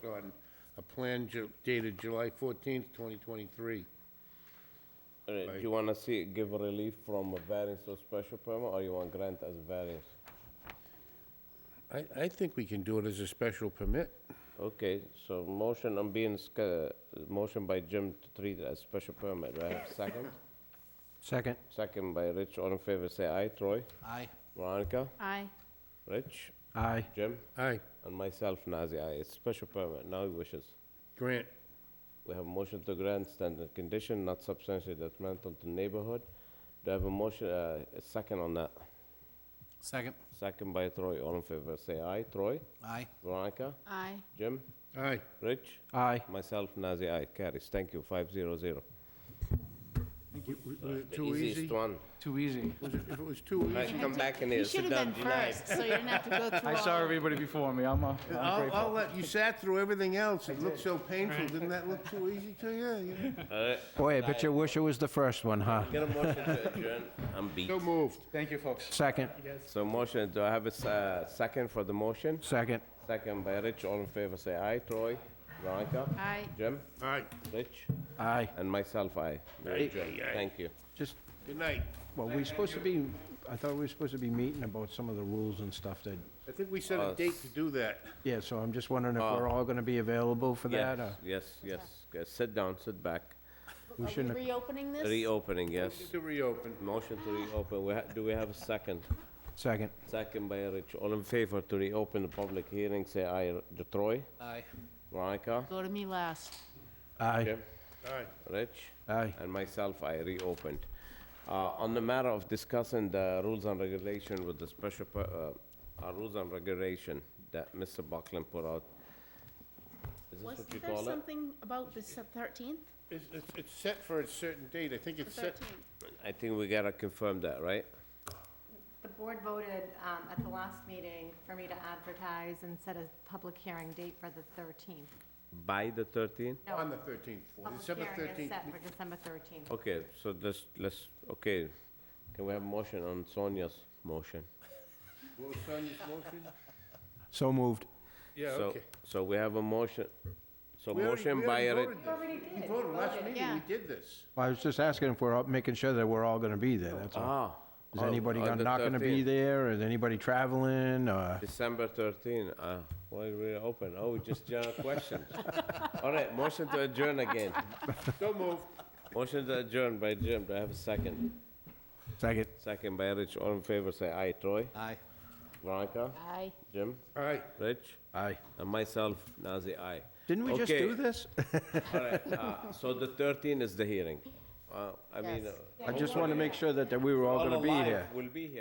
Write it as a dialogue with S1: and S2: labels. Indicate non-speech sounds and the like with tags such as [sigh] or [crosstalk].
S1: on a plan ju- dated July fourteenth, twenty twenty-three.
S2: All right, do
S1: Right.
S2: you wanna see, give a relief from a variance to a special permit, or you want grant as a variance?
S1: I, I think we can do it as a special permit.
S2: Okay, so motion on being, sca- motion by Jim to treat it as special permit, do I have a second?
S3: Second.
S2: Second by Rich, all in favor, say aye, Troy,
S3: Aye.
S2: Veronica,
S4: Aye.
S2: Rich,
S3: Aye.
S2: Jim,
S1: Aye,
S2: and myself, Nazir, aye, it's special permit, now he wishes.
S1: grant.
S2: We have a motion to grant standard condition, not substantially detrimental to neighborhood. Do I have a motion, uh, a second on that?
S3: Second.
S2: Second by Troy, all in favor, say aye, Troy,
S3: Aye.
S2: Veronica,
S4: Aye.
S2: Jim,
S1: Aye.
S2: Rich,
S3: Aye.
S2: myself, Nazir, aye, carries, thank you, five zero zero.
S1: W- w- Was it
S2: The
S1: too easy?
S2: Easiest one.
S3: Too easy.
S1: Was it- If it was too
S2: Nice,
S1: easy,
S2: come back in here,
S4: You should
S2: sit
S4: have
S2: down,
S4: been
S2: deny.
S4: first, so you didn't have
S2: [laughs]
S4: to go through all.
S3: I saw everybody before me, I'm, uh, I'm
S1: I'll,
S3: grateful.
S1: I'll let, you sat through everything else, it looked so painful, didn't that look too easy to you? you?
S5: Boy, I bet you wish it was the first one, huh?
S2: Get a motion to adjourn, I'm beat.
S1: So moved.
S3: Thank you, folks.
S5: Second,
S2: So motion, do I have a s- uh, second for the motion?
S5: second.
S2: Second by Rich, all in favor, say aye, Troy, Veronica,
S4: Aye.
S2: Jim,
S1: Aye,
S2: Rich,
S5: Aye.
S2: and myself, aye. We're
S1: Aye,
S2: adjourned.
S1: aye, aye.
S2: Thank you.
S5: Just,
S1: good night.
S5: well, we supposed to be, I thought we were supposed to be meeting about some of the rules and stuff that,
S1: I think we set a date to do that.
S5: yeah, so I'm just wondering if
S2: Oh.
S5: we're all gonna be available for
S2: Yes,
S5: that, or
S2: yes, yes, yes, sit down, sit back.
S5: we
S4: Are we
S5: shouldn't have...
S4: reopening this?
S2: Reopening, yes.
S1: To reopen.
S2: Motion to reopen, we ha- do we have a second?
S5: Second.
S2: Second by Rich, all in favor to reopen the public hearing, say aye, R- Troy,
S3: Aye.
S2: Veronica,
S4: Go to me last.
S5: Aye,
S2: Jim,
S1: Aye.
S2: Rich?
S5: aye.
S2: and myself, I reopened. Uh, On the matter of discussing the rules and regulation with the special, per- uh, uh, rules and regulation that Mr. Buckland put out. Is this what you
S4: Wasn't there
S2: call it?
S4: something about the thirteenth?
S1: It's, it's- it's set for a certain date, I think
S4: The
S1: it's set.
S4: thirteenth.
S2: I think we gotta confirm that, right?
S6: The board voted um, at the last meeting for me to advertise and set a public hearing date for the 13th.
S2: By the 13th?
S6: No,
S1: On the 13th, December
S6: Public hearing is
S1: 13th.
S6: set for December 13th.
S2: Okay, so this, let's, okay, can we have a motion on Sonia's motion?
S1: What was Sonia's motion?
S5: So moved.
S1: Yeah,
S2: So-
S1: okay.
S2: So we have a motion, so
S1: We already-
S2: motion
S1: we
S2: by,
S1: already
S2: Rich.
S1: voted
S6: You already
S1: this.
S6: did.
S1: We voted last meeting,
S4: Yeah.
S1: we did this.
S5: Well, I was just asking if we're all, making sure that we're all gonna be there, that's all.
S2: ah.
S5: Is
S2: oh,
S5: anybody
S2: on
S5: gonna-
S2: the
S5: not gonna be
S2: 13th.
S5: there, is anybody traveling, or...
S2: December 13, uh, why we open? Oh, just general questions. [laughs] All right, motion to adjourn again.
S1: So moved.
S2: Motion to adjourn by Jim, do I have a second?
S5: Second.
S2: Second by Rich, all in favor, say aye. Troy?
S3: Aye.
S2: Veronica?
S4: Aye.
S2: Jim?
S1: All right.
S2: Rich?
S5: Aye.
S2: And myself, Nazir, aye.
S5: Didn't we just
S2: Okay,
S5: do this?
S2: All right, uh, so the 13 is the hearing. Uh, I mean,
S4: Yes.
S2: uh,
S5: I just wanna make sure that that we were all
S2: all
S5: gonna be
S2: alive
S5: here.
S2: will be here.